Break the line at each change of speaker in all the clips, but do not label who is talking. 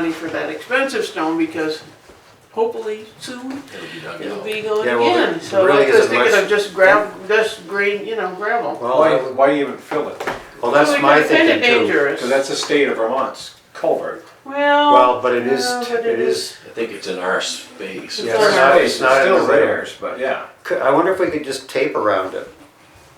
money for that expensive stone because hopefully soon
It'll be done
it'll
now.
be going
Yeah, well, there-
again. So
there really
I was
isn't
thinking
much-
of just gravel, just green, you know, gravel.
Well,
Why,
I-
why even fill it?
well, that's
Well,
my
it's kinda
thinking too.
dangerous.
Because that's the state of Vermont's culvert.
Well.
Well, but it is,
yeah, Oh, but
it is,
I think it's in our space.
Yeah, it's not- it's not in the
still
river.
theirs, but yeah.
Could- I wonder if we could just tape around it,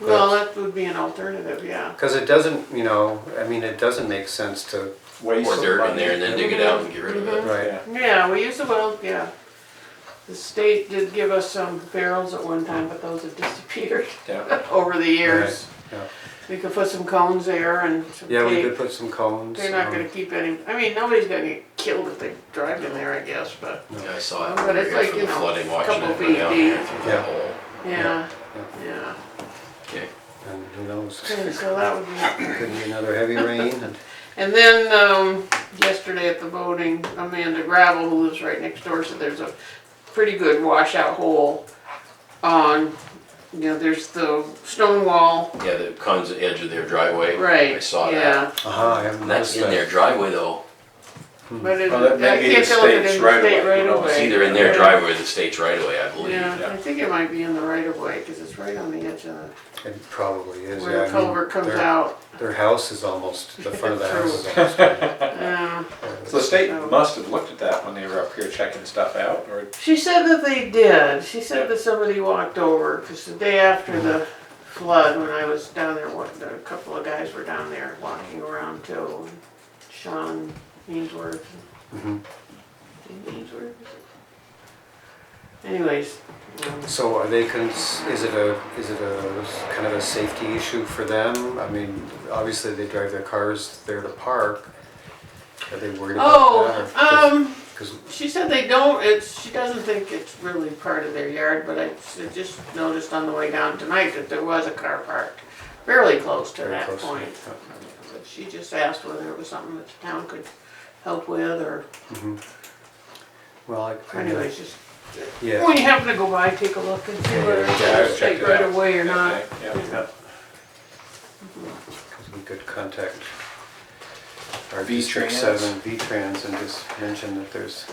Well, that would be an alternative, yeah.
because it doesn't, you know, I mean, it doesn't make sense to,
Waste
Pour
of
dirt in
money.
there and then dig it out and get rid of it.
right?
Yeah.
Yeah, we used to, well, yeah. The state did give us some barrels at one time, but those have disappeared
Yeah.
over the years.
yeah.
We could put some cones there and some
Yeah, we
tape.
could put some cones.
They're not
um,
gonna keep any, I mean, nobody's gonna get killed if they drive in there, I guess, but,
Mm-hmm.
Yeah, I saw it.
But it's
right
like,
from
you
the
know,
flooding, watching
couple
it go
feet
down
deep.
there through the
Yeah.
hole.
yeah, yeah.
Okay.
And who knows,
Okay, so that would be,
could be another heavy rain and,
and then, um, yesterday at the voting, Amanda Gravel, who lives right next door, said there's a pretty good washout hole on, you know, there's the stone wall,
Yeah, the cons edge of their driveway.
right,
I saw that.
yeah.
uh I haven't
And that's
noticed
in their
that.
driveway though. Hmm.
But it,
Well, that may
I
be the
can't tell if it's
state's
in the
right of
state
way, you
right
know,
of
it's
way.
It's either in their
Yeah.
driveway or the state's right away, I believe.
Yeah, I think it might be in the right of way, cause it's right on the edge of the,
It probably is, yeah.
where
I
the
mean,
culvert comes
their-
out,
Their house is almost, the front of the
True.
house is almost. gone.
yeah.
So the state must have looked at that when they were up here checking stuff out, or
She said that they did. She said
Yeah.
that somebody walked over because the day after the
Mm-hmm.
flood, when I was down there, what, a couple of guys were down there walking around too. and Sean Ainsworth.
Mhm.
Ainsworth. Anyways, um,
So are they, cons- is it a, is it a kind of a safety issue for them? I mean, obviously they drive their cars there to park. Are they worried about that?
oh, um.
Because
She said they don't, it's, she doesn't think it's really part of their yard, but I s- I just noticed on the way down tonight that there was a car parked fairly close to
Very
that
close,
point. But She just asked whether it was something that the town could help with, or
Well, I- I, know-
anyways, just,
yeah,
when you happen to go by, take a look and see
Yeah,
whether
yeah,
it's
yeah,
a
I've checked
state
it
right
out.
away or not.
Yeah, yeah.
'cause we could contact our
V
District
Trans.
Seven, V-Trans, and just mention that there's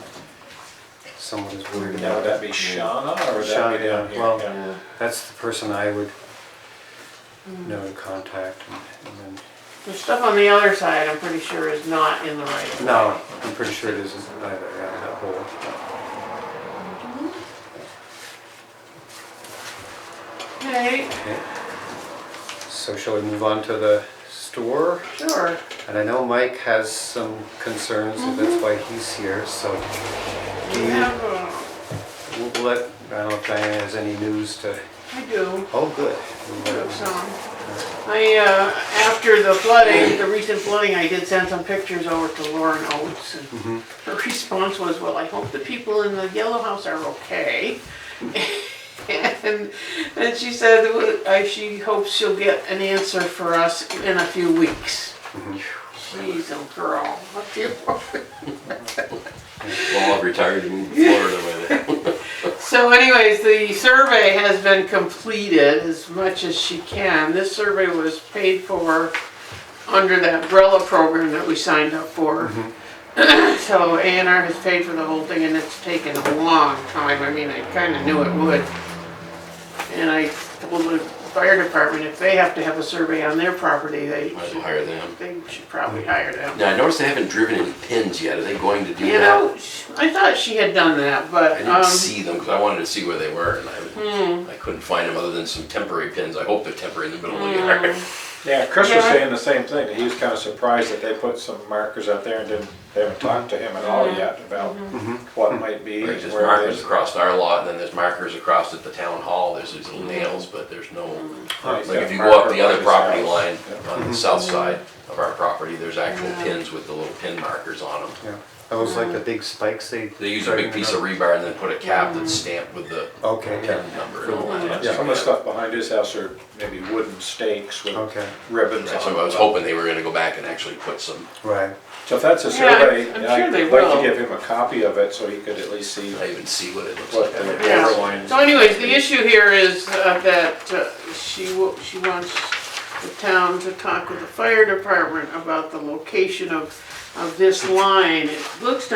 someone who's worried
Now,
about
would
it.
that be Shauna, or would that
Shauna,
be down here?
well-
Yeah.
That's the person I would know to contact and- and
The stuff on the other side, I'm pretty sure is not in the right of
then, no, I'm pretty sure it isn't either, yeah, that whole.
Okay,
Okay. So shall we move on to the store?
sure.
And I know Mike has some concerns, and that's why he's here, so
You have, uh,
we'll we'll let, I don't know if Diane has any news to,
I do.
oh, good. Mm-hmm. We'll let him-
So, I, uh, after the flooding, the recent flooding, I did send some pictures over to Lauren Oates. and Her response was, well, I hope the people in the yellow house are okay. And, and she said, well, I- she hopes she'll get an answer for us in a few weeks. She's a girl, I'll tell you.
Well, I've retired and moved to Florida with it.
So anyways, the survey has been completed as much as she can. This survey was paid for under the umbrella program that we signed up for.
Mm-hmm.
So A and R has paid for the whole thing and it's taken a long time. I mean, I kinda knew it would. And I told the fire department, if they have to have a survey on their property, they
Might as well
should,
hire them.
they should probably hire them.
Now, I noticed they haven't driven in pins yet. Are they going to do
You
that?
know, sh- I thought she had done that, but,
I
um, Hmm.
didn't see them because I wanted to see where they were and I, would- I couldn't find them other than some temporary pins. I hope they're temporary in the middle of the yard.
Hmm.
Yeah, Chris
Yeah.
was saying the same thing, that he was kinda surprised that they put some markers out there and didn't, they haven't talked to him at all yet about
Mm-hmm.
Mm-hmm,
what might be,
Right, there's
where it
markers
is.
across our lot, and then there's markers across at the town hall, there's these
Hmm.
little nails, but there's no,
Right, he's
like
got
if you
a
go up
marker
the
by
other
his
property
house.
line
Yeah.
on the south
Hmm.
side of our property, there's actual pins with the little pin markers on them.
Yeah, those like the big spikes they.
They use a big piece of rebar and then put a cap
Hmm.
that's stamped with the
Okay,
pin
yeah,
number and all that.
Yeah, Some of the stuff behind his house are maybe wooden stakes with
Okay.
ribbons
Right,
on
So I was
them.
hoping they were gonna go back and actually put some,
right.
So if that's a
Yeah, I'm-
survey,
I'm sure
I'd
they
like
will.
to give him a copy of it so he could at least see
I even see what it looks
what
like.
the
Yeah.
border lines.
So anyways, the issue here is uh, that uh, she, wa- she wants the town to talk with the fire department about the location of of this line, it looks to